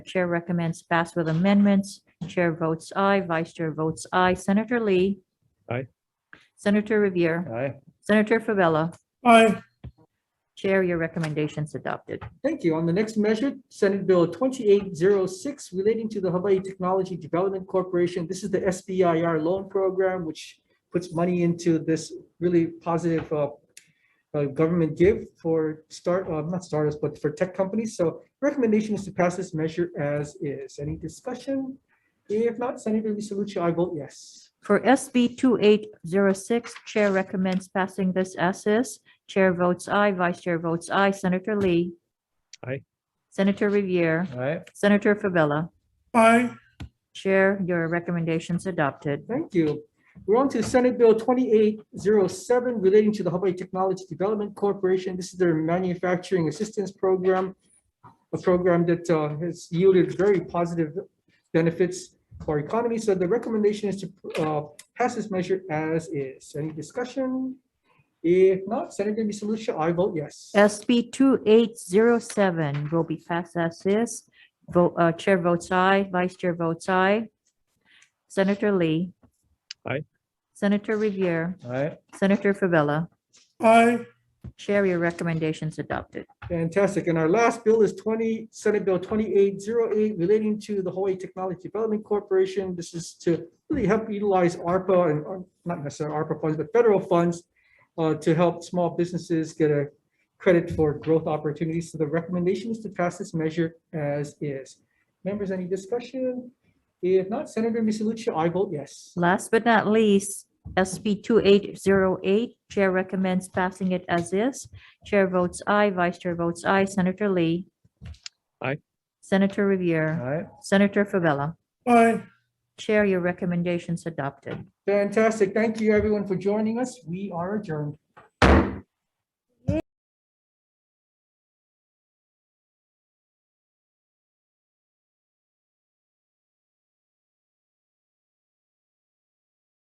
Chair recommends pass with amendments. Chair votes aye, Vice Chair votes aye. Senator Lee. Aye. Senator Revere. Aye. Senator Favela. Aye. Chair, your recommendation's adopted. Thank you. On the next measure, Senate Bill 2806 relating to the Hawaii Technology Development Corporation. This is the SBIR loan program, which puts money into this really positive uh, uh, government give for start, uh, not startups, but for tech companies. So recommendation is to pass this measure as is. Any discussion? If not, Senator Lucia, I vote yes. For SB 2806, Chair recommends passing this as is. Chair votes aye, Vice Chair votes aye. Senator Lee. Aye. Senator Revere. Aye. Senator Favela. Aye. Chair, your recommendation's adopted. Thank you. We're on to Senate Bill 2807 relating to the Hawaii Technology Development Corporation. This is their manufacturing assistance program, a program that uh, has yielded very positive benefits for our economy. So the recommendation is to uh, pass this measure as is. Any discussion? If not, Senator Misalucia, I vote yes. SB 2807 will be passed as is. Vote, uh, Chair votes aye, Vice Chair votes aye. Senator Lee. Aye. Senator Revere, Aye. Senator Favela. Aye. Chair, your recommendations adopted. Fantastic. And our last bill is 20, Senate Bill 2808 relating to the Hawaii Technology Development Corporation. This is to really help utilize ARPA and or not necessarily ARPA funds, but federal funds uh, to help small businesses get a credit for growth opportunities. So the recommendation is to pass this measure as is. Members, any discussion? If not, Senator Misalucia, I vote yes. Last but not least, SB 2808, Chair recommends passing it as is. Chair votes aye, Vice Chair votes aye. Senator Lee. Aye. Senator Revere, Aye. Senator Favela. Aye. Chair, your recommendations adopted. Fantastic. Thank you, everyone, for joining us. We are adjourned.